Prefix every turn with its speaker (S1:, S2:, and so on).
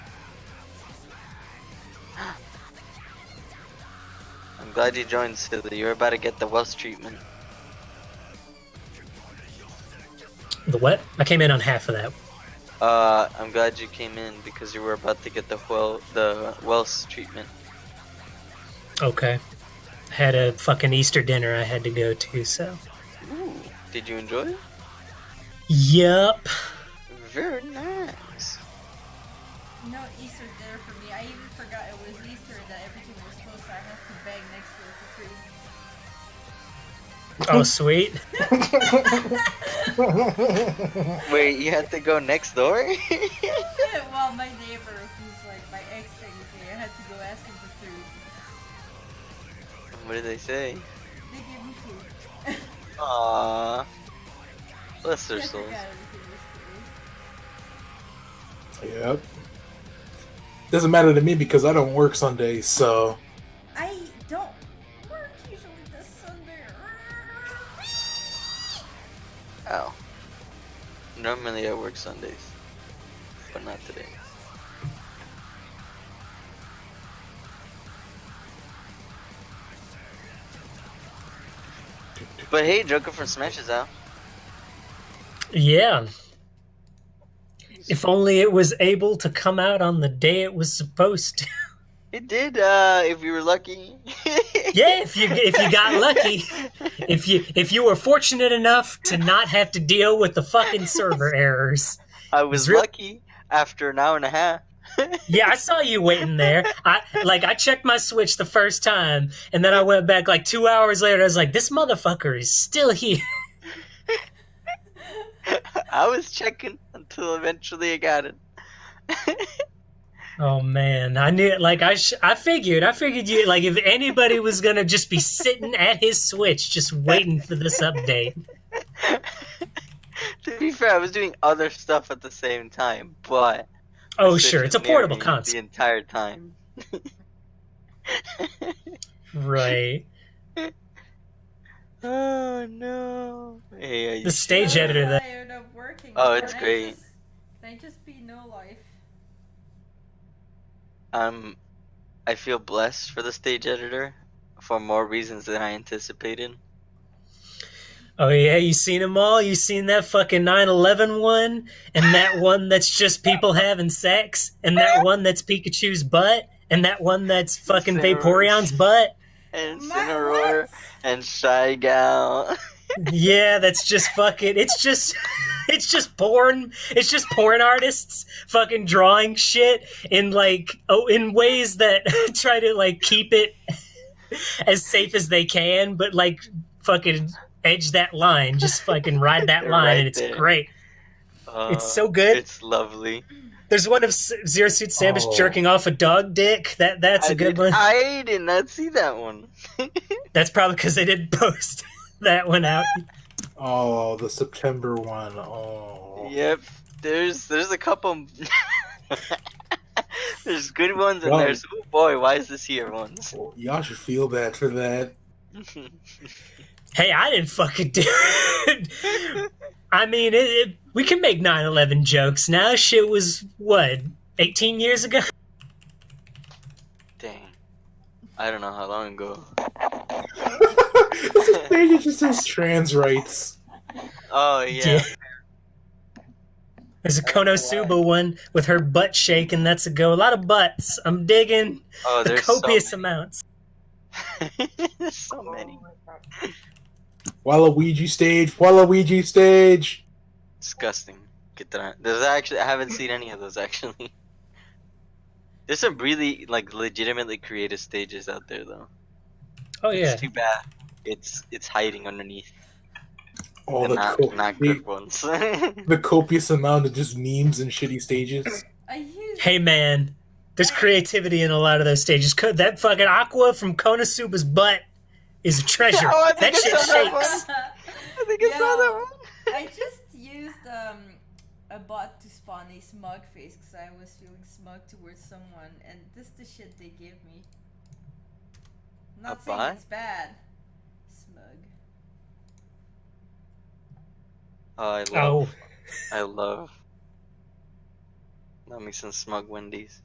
S1: I'm glad you joined, Silly. You're about to get the Welsh treatment.
S2: The what? I came in on half of that.
S1: Uh, I'm glad you came in because you were about to get the well the Welsh treatment.
S2: Okay. I had a fucking Easter dinner I had to go to, so.
S1: Ooh, did you enjoy it?
S2: Yep.
S1: Very nice.
S3: No Easter dinner for me. I even forgot it was Easter and that everything was supposed to I have to beg next door for
S2: Oh,
S3: food.
S2: sweet.
S1: Wait, you had to go next door?
S3: well, my neighbor, who's like my ex technically, I had to go ask him for food.
S1: what did they say?
S3: They gave me food.
S1: Aww. Bless their
S3: I
S1: souls.
S3: forgot everything was food.
S4: Yep. Doesn't matter to me because I don't work Sundays, so
S3: I don't work usually this Sunday.
S1: Ow. Normally I work Sundays, but not today. But hey, Joker from Smash is out.
S2: Yeah. If only it was able to come out on the day it was supposed to.
S1: It did, uh, if you were lucky.
S2: yeah, if you if you got lucky, if you if you were fortunate enough to not have to deal with the fucking server errors.
S1: I was
S2: Real-
S1: lucky after an hour and a half.
S2: Yeah, I saw you waiting there. I like I checked my switch the first time, and then I went back like two hours later. I was like, this motherfucker is still here.
S1: I was checking until eventually I got it.
S2: Oh man, I knew it. Like I, sh- I figured, I figured you. Like if anybody was gonna just be sitting at his switch, just waiting for this update.
S1: to be fair, I was doing other stuff at the same time, but
S2: Oh
S1: the
S2: sure,
S1: Switch
S2: it's a
S1: was near
S2: portable
S1: me The
S2: console,
S1: entire time.
S2: right?
S1: Oh no! Hey, I-
S2: The stage editor that.
S3: tired of working.
S1: Oh, it's
S3: Can I
S1: great.
S3: just- Can I just be no life?
S1: um, I feel blessed for the stage editor for more reasons than I anticipated.
S2: Oh yeah, you seen them all. You seen that fucking 9/11 one, and that one that's just people having sex, and that one that's Pikachu's butt, and that one that's fucking
S1: Incineroar.
S2: Vaporeon's butt.
S1: And
S3: My
S1: Cineroar
S3: what?
S1: and Shy Gal.
S2: Yeah, that's just fucking. It's just, it's just porn. It's just porn artists fucking drawing shit in like oh in ways that try to like keep it as safe as they can, but like fucking edge that line, just fucking ride that
S1: They're
S2: line,
S1: right
S2: and it's
S1: there.
S2: great.
S1: Uh,
S2: It's so good.
S1: It's lovely.
S2: There's one of S- Zero Suit Samus
S4: Oh.
S2: jerking off a dog dick. That that's a
S1: I
S2: good
S1: did,
S2: one.
S1: I did not see that one.
S2: That's probably because they didn't post that one out.
S4: oh the September one. Oh
S1: Yep. There's there's a couple. there's good ones and
S4: Wow.
S1: there's oh boy, why is this here ones?
S4: y'all should feel bad for that.
S2: Hey, I didn't fucking do it. I mean, it, it, we can make 9/11 jokes now. Shit was what 18 years ago.
S1: Dang. I don't know how long ago.
S4: this is crazy, it just says trans rights.
S1: Oh yeah.
S2: There's a Konosuba one with her butt shaking. That's a go. A lot of butts. I'm digging
S1: Oh,
S2: the
S1: there's
S2: copious
S1: so
S2: amounts.
S1: many. There's so many.
S4: Waluigi stage, Waluigi stage.
S1: Disgusting. Get that. out. There's actually I haven't seen any of those actually. There's some really like legitimately creative stages out there though.
S2: Oh yeah.
S1: It's too bad. It's it's hiding underneath
S4: All
S1: the
S4: Oh, the
S1: not,
S4: co-
S1: not
S4: the,
S1: good ones.
S4: the copious amount of just memes and shitty stages.
S3: I use
S2: Hey man, there's creativity in a lot of those stages. Co- That fucking aqua from Konosuba's butt is a treasure.
S1: Oh, I
S2: that
S1: think
S2: shit
S1: I saw that one.
S2: shakes.
S1: I think I saw that
S3: Yeah.
S1: one.
S3: I just used um, a bot to spawn a smug face because I was feeling smug towards someone, and this is the shit they give me. Not
S1: A
S3: saying
S1: bot?
S3: it's bad. Smug.
S1: Oh, I love.
S2: Oh,
S1: I love. Let me some smug Wendy's.